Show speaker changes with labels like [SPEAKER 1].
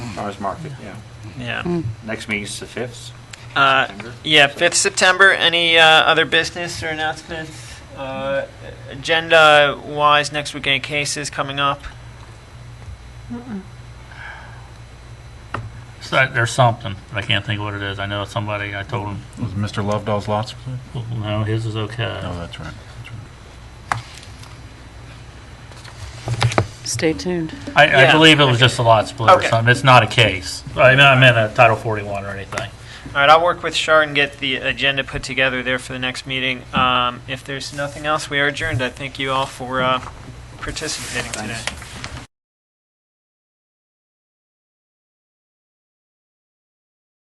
[SPEAKER 1] farmer's market, yeah.
[SPEAKER 2] Yeah.
[SPEAKER 1] Next meeting's the 5th.
[SPEAKER 2] Uh,
[SPEAKER 1] September.
[SPEAKER 2] Yeah, 5th September. Any uh, other business or announcements? Uh, Agenda-wise, next week, any cases coming up?
[SPEAKER 3] So there's something, but I can't think what it is. I know somebody, I told him,
[SPEAKER 4] Was it Mr. Lovedall's lots? No,
[SPEAKER 3] well, no, his is okay.
[SPEAKER 4] that's right. That's right.
[SPEAKER 5] Stay tuned.
[SPEAKER 3] I,
[SPEAKER 2] Yeah.
[SPEAKER 3] I believe it was just a lot split or
[SPEAKER 2] Okay.
[SPEAKER 3] something. It's not a case. I mean, I meant a Title 41 or anything.
[SPEAKER 2] All right, I'll work with Shar and get the agenda put together there for the next meeting. Um, If there's nothing else, we are adjourned. I thank you all for uh, participating today.
[SPEAKER 1] Thanks.